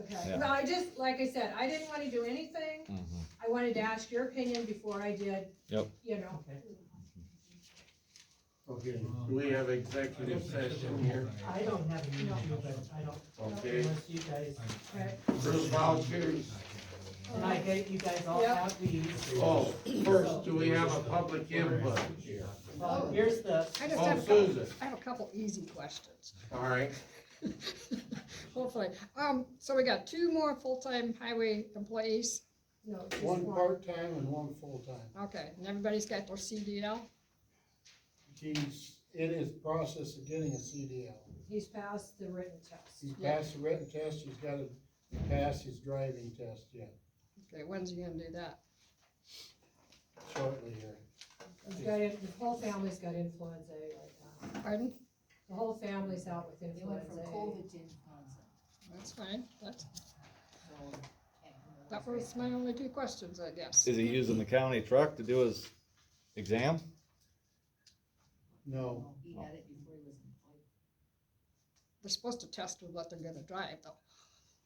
okay? Yeah. Well, I just, like I said, I didn't wanna do anything, Mhm. I wanted to ask your opinion before I did. Yep. You know, Okay, do we have executive session here, I don't have an issue, but I don't, okay? unless you guys, okay, Approve vouchers, and I get, you guys all Yeah. have these. oh, first, do we have a public input? Well, here's the, I just Oh, have a couple, Susan, I have a couple easy questions, all right, hopefully. Um, so we got two more full-time highway employees, no, just One one, part-time and one full-time. okay, and everybody's got their CDL? He's in his process of getting a CDL. he's passed the written test. He's passed the written test, he's gotta pass his driving test yet, Okay, when's he gonna do that? shortly here. He's got, in- the whole family's got influenza right now, Pardon? the whole family's out with They went influenza. from COVID to influenza, That's fine, that's, so. can't remember that what's was my only two questions, I guess. Is he using the county truck to do his exam? right. No, No, He had it before he was employed. They're supposed to test with what they're gonna drive though.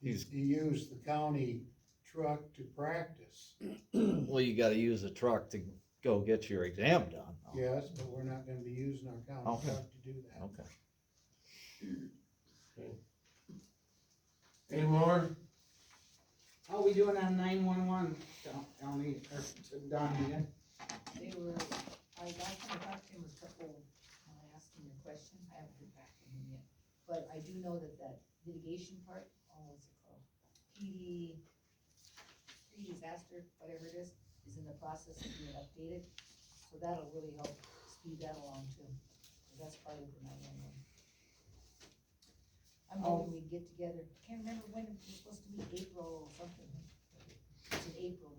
he he used the county truck to practice, Well, you gotta use the truck to go get your exam done. yes, but we're not gonna be using our county Okay. truck to do that. Okay. any more? How we doing on nine-one-one, Tony, or Don, again? They were, I last time I talked to him was a couple, when I asked him your question, I haven't heard back from him yet. But I do know that that litigation part, oh, what's it called? PD, pre-disaster, whatever it is, is in the process of being updated. So that'll really help speed that along too, 'cause that's part of the nine-one-one. I'm hoping we get together, can't remember when, it was supposed to be April or something. It's in April.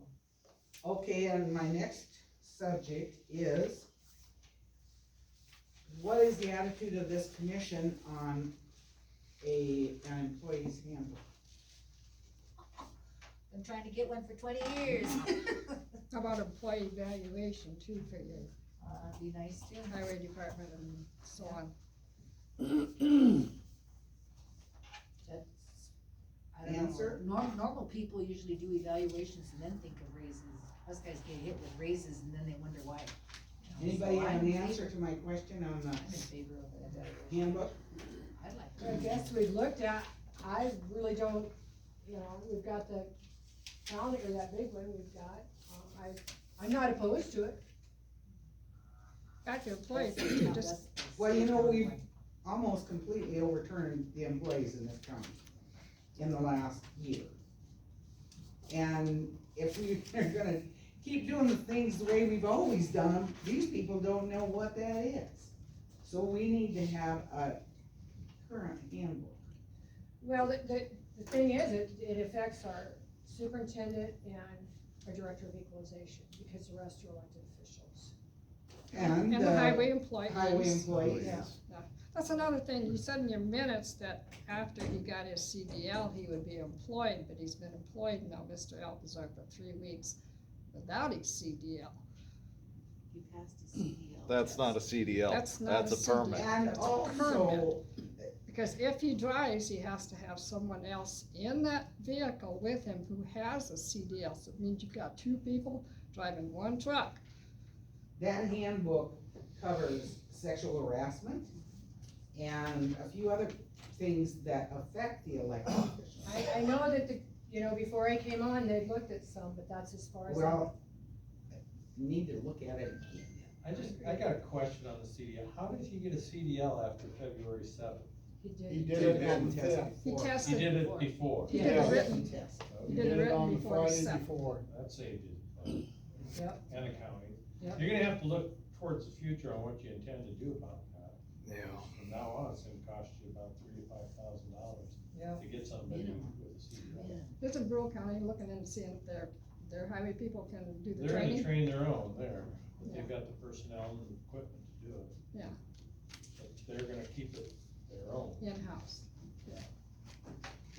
Okay, and my next subject is, what is the attitude of this commission on a, an employee's handbook? Been trying to get one for twenty years. How about employee evaluation too for your Uh, be nice to him. highway department and so on? That's, I don't know. Answer? Normal, normal people usually do evaluations and then think of raises. Us guys get hit with raises and then they wonder why. You know, Anybody so have I'm an in answer favor- to my question on I'm in the favor of an evaluation. handbook? I'd like. I guess we looked at, I really don't, you know, we've got the calendar, that big one we've got, um, I, I'm not opposed to it. Back to employees, too, just, Well, you know, we've- Almost completely overturned the employees in this county in the last year. And if we are gonna keep doing the things the way we've always done them, these people don't know what that is. So we need to have a current handbook. Well, the, the, the thing is, it, it affects our superintendent and our director of equalization, because the rest are elected officials. And and the the highway employees. highway employees, Yeah. That's another thing, you said in your minutes that after he got his CDL, he would be employed, but he's been employed now, Mr. Alpizar, for three weeks without his CDL. You passed a CDL. That's not a CDL, That's not that's a a CDL. permit. and That's a also, permit. Because if he drives, he has to have someone else in that vehicle with him who has a CDL, so it means you've got two people driving one truck. that handbook covers sexual harassment and a few other things that affect the elected officials. I, I know that the, you know, before I came on, they looked at some, but that's as far as. I- Well, need to look at it. I just, I got a question on the CDL. How did he get a CDL after February seventh? He He did, did it on the Did it on fifth. He He tested did before. it before. He did Yeah. it written, test. He Did it did it written on the before the Friday seventh. before. I'd say he did. Yep. And the county. Yep. You're gonna have to look towards the future on what you intend to do about that. Yeah. From now on, it's gonna cost you about three to five thousand dollars yeah, to get somebody with a CDL. This is rural county, looking into seeing if their, their highway people can do the They're gonna training. train their own there, but they've got the personnel and equipment to do it. Yeah. But they're gonna keep it their own. In-house.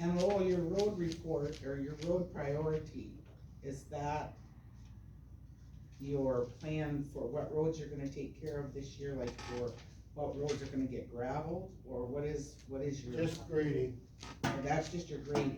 And Lowell, your road report or your road priority, is that your plan for what roads you're gonna take care of this year, like for what roads are gonna get gravelled, or what is, what is your? Just greedy. That's just your grade